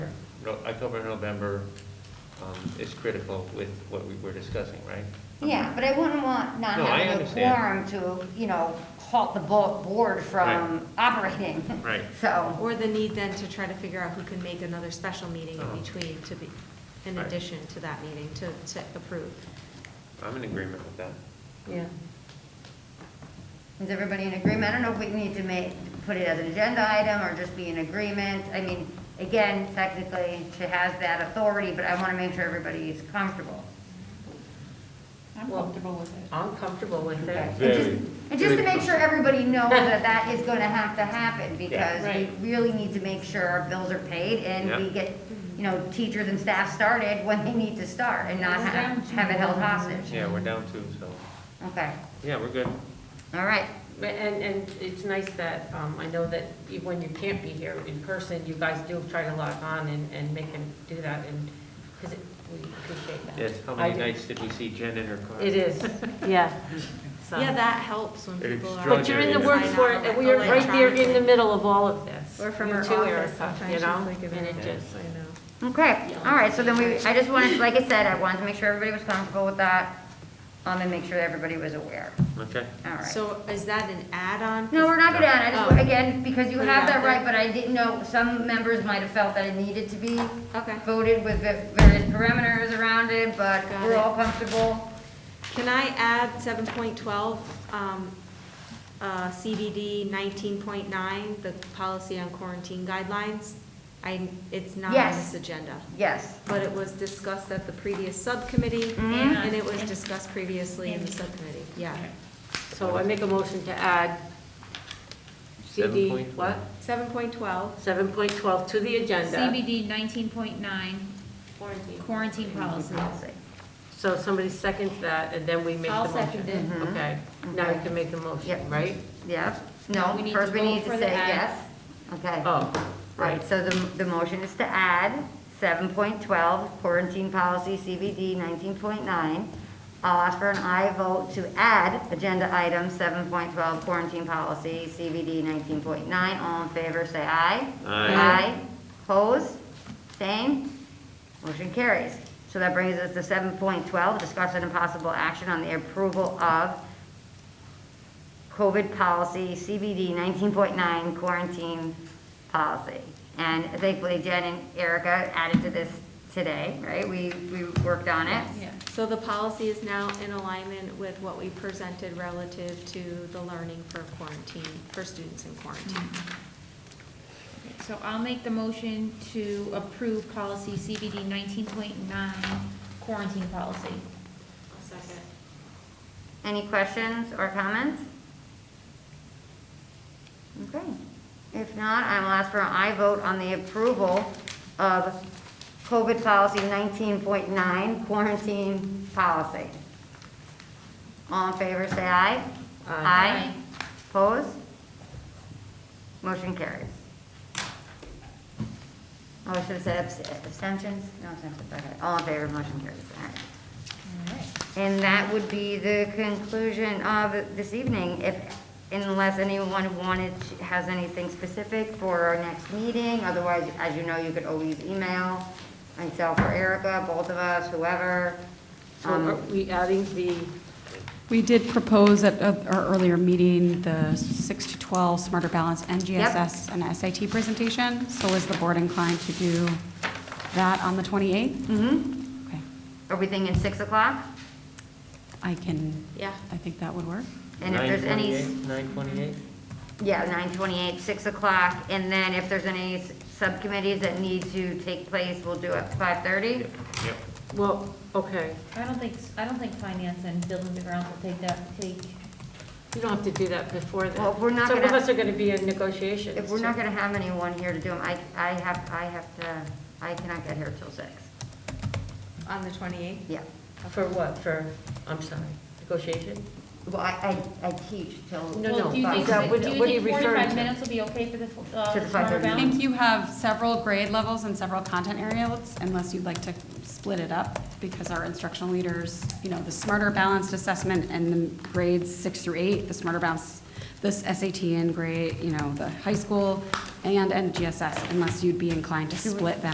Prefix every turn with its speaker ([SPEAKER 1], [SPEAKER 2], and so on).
[SPEAKER 1] No- October, November um, is critical with what we were discussing, right?
[SPEAKER 2] Yeah, but I wouldn't want not
[SPEAKER 1] No, I
[SPEAKER 2] having a quorum
[SPEAKER 1] understand.
[SPEAKER 2] to, you know, halt the bo- board from operating.
[SPEAKER 1] Right.
[SPEAKER 2] So,
[SPEAKER 3] Or the need then to try to figure out who can make another special meeting
[SPEAKER 1] Oh.
[SPEAKER 3] in between to be, in
[SPEAKER 1] Right.
[SPEAKER 3] addition to that meeting to, to approve.
[SPEAKER 1] I'm in agreement with that.
[SPEAKER 3] Yeah.
[SPEAKER 2] is everybody in agreement? I don't know if we need to make, put it as an agenda item or just be in agreement. I mean, again, technically, she has that authority, but I want to make sure everybody's comfortable.
[SPEAKER 4] I'm comfortable with it.
[SPEAKER 5] I'm comfortable with
[SPEAKER 2] And
[SPEAKER 5] it.
[SPEAKER 2] just- And just to make sure everybody knows that that is going to have to happen, because we
[SPEAKER 4] Right.
[SPEAKER 2] really need to make sure our bills are paid and we
[SPEAKER 1] Yeah.
[SPEAKER 2] get, you know, teachers and staff started when they need to start and not
[SPEAKER 4] We're
[SPEAKER 2] ha-
[SPEAKER 4] down to
[SPEAKER 2] have it held
[SPEAKER 4] one.
[SPEAKER 2] hostage.
[SPEAKER 1] Yeah, we're down two, so,
[SPEAKER 2] Okay,
[SPEAKER 1] yeah, we're good.
[SPEAKER 2] all right.
[SPEAKER 5] But- And, and it's nice that, um, I know that you- when you can't be here in person, you guys do try to log on and, and make them do that, and, because we appreciate that.
[SPEAKER 1] Yes, how
[SPEAKER 5] I
[SPEAKER 1] many
[SPEAKER 5] do.
[SPEAKER 1] nights did we see Jen in her car?
[SPEAKER 5] It is, yeah. So-
[SPEAKER 3] Yeah, that helps when
[SPEAKER 1] It's
[SPEAKER 3] people are.
[SPEAKER 1] drug
[SPEAKER 5] But you're in the
[SPEAKER 1] Extraordinary.
[SPEAKER 5] workforce, and we are right there in the middle of all of this.
[SPEAKER 3] Or from
[SPEAKER 5] You
[SPEAKER 3] her
[SPEAKER 5] too,
[SPEAKER 3] office,
[SPEAKER 5] Erica,
[SPEAKER 3] sometimes
[SPEAKER 5] you
[SPEAKER 3] she's
[SPEAKER 5] know?
[SPEAKER 3] like,
[SPEAKER 5] And it
[SPEAKER 3] "Oh,
[SPEAKER 5] just,
[SPEAKER 3] I know.
[SPEAKER 2] Okay, all right, so then we, I just wanted, like I said, I wanted to make sure everybody was comfortable with that, um, and make sure everybody was aware.
[SPEAKER 1] Okay,
[SPEAKER 2] All right.
[SPEAKER 3] So is that an add-on?
[SPEAKER 2] No, we're not gonna add, I
[SPEAKER 3] Oh.
[SPEAKER 2] just, again, because you
[SPEAKER 3] Put it
[SPEAKER 2] have
[SPEAKER 3] out
[SPEAKER 2] that
[SPEAKER 3] there.
[SPEAKER 2] right, but I didn't know, some members might have felt that it needed to be
[SPEAKER 3] Okay.
[SPEAKER 2] voted with the various parameters around it, but
[SPEAKER 3] Got
[SPEAKER 2] we're
[SPEAKER 3] it.
[SPEAKER 2] all comfortable.
[SPEAKER 3] Can I add seven point twelve, um, uh, CBD nineteen point nine, the policy on quarantine guidelines? I, it's not on
[SPEAKER 2] Yes.
[SPEAKER 3] this agenda,
[SPEAKER 2] Yes,
[SPEAKER 3] but it was discussed at the previous subcommittee, and it was discussed previously in the subcommittee, yeah.
[SPEAKER 5] so I make a motion to add CD, what?
[SPEAKER 1] 7.12.
[SPEAKER 3] Seven point twelve,
[SPEAKER 5] 7.12 to the agenda.
[SPEAKER 4] CBD nineteen point nine, quarantine policy.
[SPEAKER 5] So somebody seconds that, and then we make the
[SPEAKER 4] I'll
[SPEAKER 5] motion.
[SPEAKER 4] second it.
[SPEAKER 5] Okay, now you can make the motion,
[SPEAKER 2] Mm-hmm. Yep.
[SPEAKER 5] right?
[SPEAKER 2] yep, no,
[SPEAKER 4] We need
[SPEAKER 2] first
[SPEAKER 4] to
[SPEAKER 2] we
[SPEAKER 4] vote
[SPEAKER 2] need to
[SPEAKER 4] for the
[SPEAKER 2] say
[SPEAKER 4] add.
[SPEAKER 2] yes. Okay,
[SPEAKER 5] Oh,
[SPEAKER 2] right,
[SPEAKER 5] right.
[SPEAKER 2] so the, the motion is to add seven point twelve quarantine policy CBD nineteen point nine. I'll ask for an aye vote to add agenda item seven point twelve quarantine policy CBD nineteen point nine. All in favor, say aye.
[SPEAKER 1] Aye.
[SPEAKER 2] Aye, opposed, abstained, motion carries. So that brings us to seven point twelve, discussion and possible action on the approval of COVID policy, CBD nineteen point nine quarantine policy. And thankfully Jen and Erica added to this today, right? We, we worked on it.
[SPEAKER 4] Yeah.
[SPEAKER 3] so the policy is now in alignment with what we presented relative to the learning for quarantine, for students in quarantine.
[SPEAKER 4] So I'll make the motion to approve policy CBD nineteen point nine, quarantine policy.
[SPEAKER 3] Second.
[SPEAKER 2] Any questions or comments? Okay. If not, I will ask for an aye vote on the approval of COVID policy 19.9 quarantine policy. All in favor, say aye. Aye. Opposed? Motion carries. Oh, I should have said abs- abstentions? No abstentions, okay. All in favor, motion carries. All right.
[SPEAKER 4] All right.
[SPEAKER 2] And that would be the conclusion of this evening, if, unless anyone wanted, to- has anything specific for our next meeting. Otherwise, as you know, you could always email myself or Erica, both of us, whoever.
[SPEAKER 5] So are
[SPEAKER 2] Um,
[SPEAKER 5] we adding the,
[SPEAKER 6] We did propose at uh, our earlier meeting, the 6 to 12 Smarter Balance NGSS and SAT presentation. So is the board inclined to do that on the 28th?
[SPEAKER 2] Mm-hmm.
[SPEAKER 6] Okay,
[SPEAKER 2] Are we thinking 6 o'clock?
[SPEAKER 6] I can,
[SPEAKER 3] Yeah.
[SPEAKER 6] I think that would work.
[SPEAKER 2] And if there's any.
[SPEAKER 1] 9:28?
[SPEAKER 2] Yeah, nine twenty-eight, six o'clock, and then if there's any s- subcommittees that need to take place, we'll do it five thirty?
[SPEAKER 1] Yep.
[SPEAKER 5] well, okay,
[SPEAKER 4] I don't think, I don't think finance and buildings and grounds will take that, take,
[SPEAKER 5] you don't have to do that before then.
[SPEAKER 2] Well, we're not
[SPEAKER 5] Some of
[SPEAKER 2] gonna-
[SPEAKER 5] us are going to be in negotiations.
[SPEAKER 2] If we're not
[SPEAKER 5] too.
[SPEAKER 2] gonna have anyone here to do them, I, I have, I have to, I cannot get here till six,
[SPEAKER 3] On the twenty-eighth?
[SPEAKER 2] yeah.
[SPEAKER 5] For what, for, I'm sorry, negotiation?
[SPEAKER 2] Well, I, I, I teach till.
[SPEAKER 5] No,
[SPEAKER 4] well,
[SPEAKER 5] no,
[SPEAKER 4] do you
[SPEAKER 2] but-
[SPEAKER 4] think,
[SPEAKER 5] that- what-
[SPEAKER 4] do you
[SPEAKER 5] what are you
[SPEAKER 4] think
[SPEAKER 5] referring
[SPEAKER 4] forty-five
[SPEAKER 5] to?
[SPEAKER 4] minutes will be okay for the, uh,
[SPEAKER 2] To the
[SPEAKER 4] the smarter
[SPEAKER 2] 5:30.
[SPEAKER 6] I
[SPEAKER 4] balance?
[SPEAKER 6] think you have several grade levels and several content areas, unless you'd like to split it up, because our instructional leaders, you know, the Smarter Balanced Assessment and the grades 6 through 8, the Smarter Balance, this SAT and grade, you know, the high school and NGSS, unless you'd be inclined to split them